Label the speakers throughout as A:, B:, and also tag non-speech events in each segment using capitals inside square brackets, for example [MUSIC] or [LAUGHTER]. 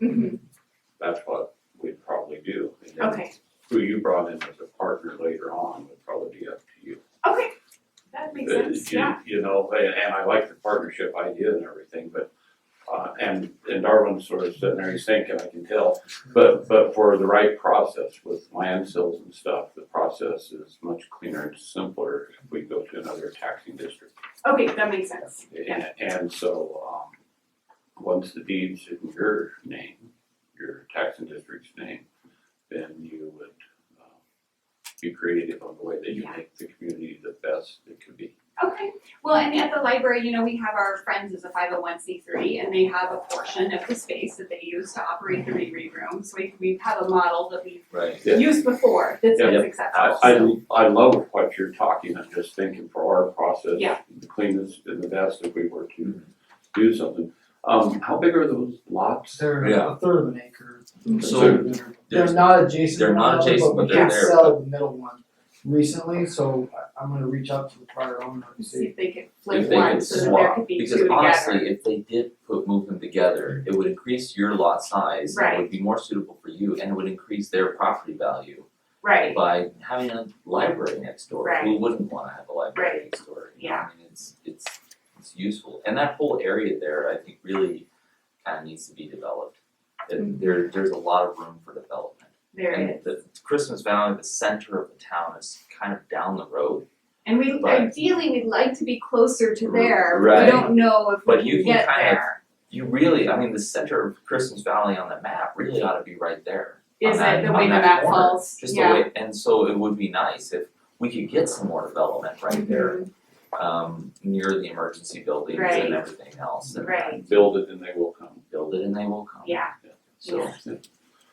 A: Mhm.
B: That's what we'd probably do. And then
A: Okay,
B: Who you brought in as a partner later on would probably be up to you.
A: okay, that makes
B: Uh,
A: sense,
B: you-
A: yeah,
B: You know, and, and I like the partnership idea and everything, but, uh, and, and Darwin's sort of sitting there, he's thinking, I can tell. But, but for the right process with land sales and stuff, the process is much cleaner and simpler if we go to another taxing district.
A: okay, that makes sense, yeah,
B: And, and so, um, once the deed's in your name, your taxing district's name, then you would, um, be creative on the way that you
A: Yeah.
B: make the community the best it could be.
A: okay. Well, and at the library, you know, we have our Friends as a five oh one C three, and they have a portion of the space that they use to operate the read room, so we, we have a model that we've
C: Right.
B: Yeah.
A: used before, that's
B: Yeah.
A: been
B: I,
A: successful, so,
B: I, I love what you're talking, I'm just thinking for our process,
A: Yeah.
B: the cleanest and the best if we were to do something. Um, how big are those lots?
D: They're
C: Yeah.
D: a third of an acre.
C: So
D: they're,
C: there's-
D: they're not adjacent to
C: they're
D: one
C: not
D: another,
C: adjacent,
D: but we
C: but they're
D: did
C: there.
D: sell the middle one recently, so I, I'm gonna reach out to the prior owner and
A: see
D: see.
A: if they could
C: if
A: flip
C: they
A: one,
C: could
A: so that there
C: swap,
A: could be two
C: because
A: together.
C: honestly, if they did put, move them together, it would increase your lot size. and It would be more suitable for you and it would increase their property value.
A: Right,
C: By having a library next door, who
A: Right.
C: wouldn't wanna have a library
A: Right.
C: next door? You know, I mean, it's, it's, it's useful, and that whole area there, I think really kinda needs to be developed. And there, there's a lot of room for development.
A: Mm-hmm. there it
C: And
A: is.
C: the Christmas Valley, the center of the town is kind of down the road,
A: And we,
C: Right.
A: ideally, we'd like to be closer to there,
C: Right.
A: we don't know if
C: But
A: we
C: you
A: can
C: can
A: get
C: kind of-
A: there.
C: you really, I mean, the center of Christmas Valley on the map really ought to be right there.
A: Is
C: on that-
A: it the
C: on
A: way the
C: that
A: map
C: corner,
A: falls?
C: Just the
A: Yeah.
C: way, and so it would be nice if we could get some more development right there, um, near the emergency buildings
A: Mm-hmm. Right.
C: and everything else, and
A: Right.
B: Build it and they will come.
C: build it and they will come.
A: Yeah,
C: So,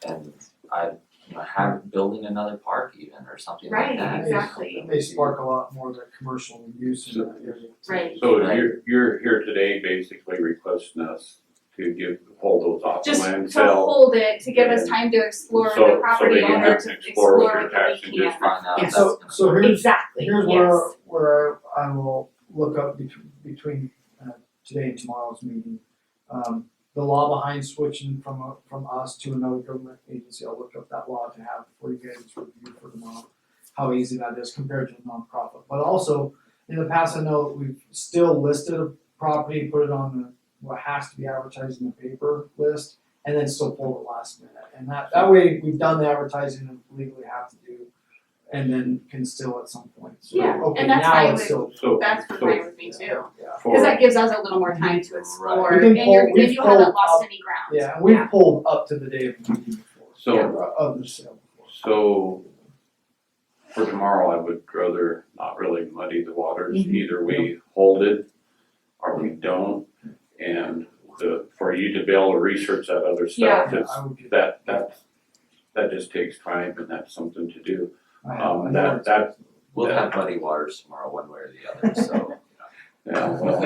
C: and I, you know, have, building another park even or something like
A: Right,
C: that.
D: It may-
A: exactly.
D: It may spark a lot more of the commercial use in that area.
A: right.
B: So
C: Right.
B: you're, you're here today basically requesting us to give, hold those off the
A: Just
B: land
A: to
B: sale.
A: hold it, to give us time to explore
B: So- so
A: the
B: they
A: property
B: don't
A: owner
B: have
A: to
B: to explore with
A: explore
B: their
A: that
B: tax
A: they
B: and
A: can.
B: just-
C: Find out if
A: Yes.
C: that's gonna
D: So, so
C: work.
D: here's,
A: Exactly,
D: here's where,
A: yes,
D: where I will look up between, between, uh, today and tomorrow's meeting. Um, the law behind switching from, a- from us to another government agency, I'll look up that law to have for you guys to review for tomorrow. How easy that is compared to a nonprofit, but also, in the past, I know that we've still listed a property, put it on the, what has to be advertised in the paper list. And then still pull it last minute, and that, that way, we've done the advertising and legally have to do and then can still at some point. So,
A: Yeah,
D: okay,
A: and that's
D: now
A: why
D: it's
A: we-
D: still-
B: So,
A: that's what
B: so
A: mine would be too, cause
B: for,
A: that gives us a little more time to explore,
D: We can
A: and you're,
D: pull- we
A: and you haven't
D: pulled
A: lost
D: up-
A: any ground.
D: Yeah, and we pulled up to the day of the meeting before.
B: so,
D: uh, Of the sale.
B: so for tomorrow, I would rather not really muddy the waters.
A: Mm-hmm.
D: Mhm.
B: Either we hold it or we don't. And the, for you to be able to research that other stuff,
D: Yeah,
B: that's,
D: I would get,
B: that, that, that just takes time and that's something to do.
D: I have, I
B: Um,
D: know.
B: that, that,
C: We'll have muddy waters tomorrow, one way or the other, so.
B: yeah, well,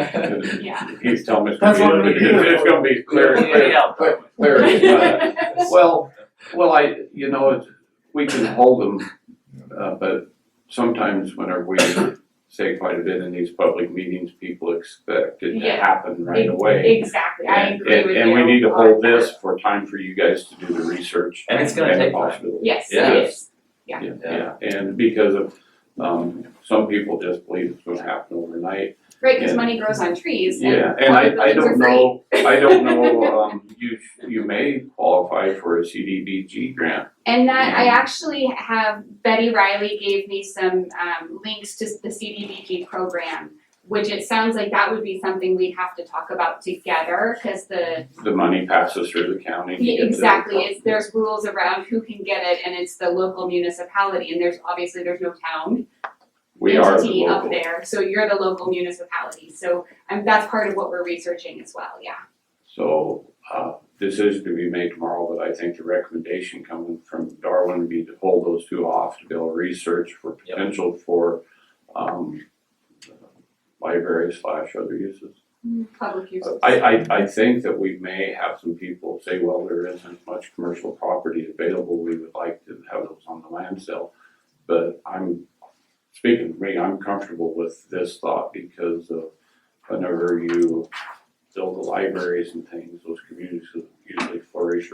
A: Yeah.
B: he's telling me it's
D: That's
B: gonna
D: what
B: be,
D: we do.
B: it's gonna be clear,
C: Yeah,
B: clear,
C: yeah, but-
B: clear as [LAUGHS] mud.
C: [LAUGHS]
B: Well, well, I, you know, it's, we can hold them, uh, but sometimes whenever we say quite a bit in these public meetings, people expect it to
A: Yeah.
B: happen right away.
A: Exactly, I
B: And-
A: agree
B: and-
A: with you.
B: And we need to
A: on
B: hold
A: that.
B: this for time for you guys to do the research.
C: And it's gonna
B: the
C: take time.
B: possibilities.
A: Yes,
C: Yeah.
A: it is, Yeah.
B: Yeah, yeah, and because of, um, some people just believe it's gonna happen overnight,
A: right, cause
B: Yeah.
A: money grows on trees and
B: Yeah, and
A: part of the
B: I, I
A: things are
B: don't
A: free.
B: know, I don't
A: [LAUGHS]
B: know, um, you, sh- you may qualify for a CDBG grant.
A: And that I actually have Betty Riley gave me some um, links to the CDBG program, which it sounds like that would be something we'd have to talk about together because the
B: The money passes through the county. to get to the-
A: exactly it's there's rules around who can get it and it's the local municipality and there's obviously there's no town
B: We are the
A: entity up
B: local,
A: there so you're the local municipality so um, that's part of what we're researching as well yeah
B: so, uh, decision to be made tomorrow, but I think the recommendation coming from Darwin would be to hold those two off to build research for
C: Yep.
B: potential for, um, library slash other uses.
A: public use
B: I, I, I think that we may have some people say, well, there isn't much commercial property available, we would like to have those on the land sale. But I'm, speaking for me, I'm comfortable with this thought because of whenever you build the libraries and things, those communities usually flourish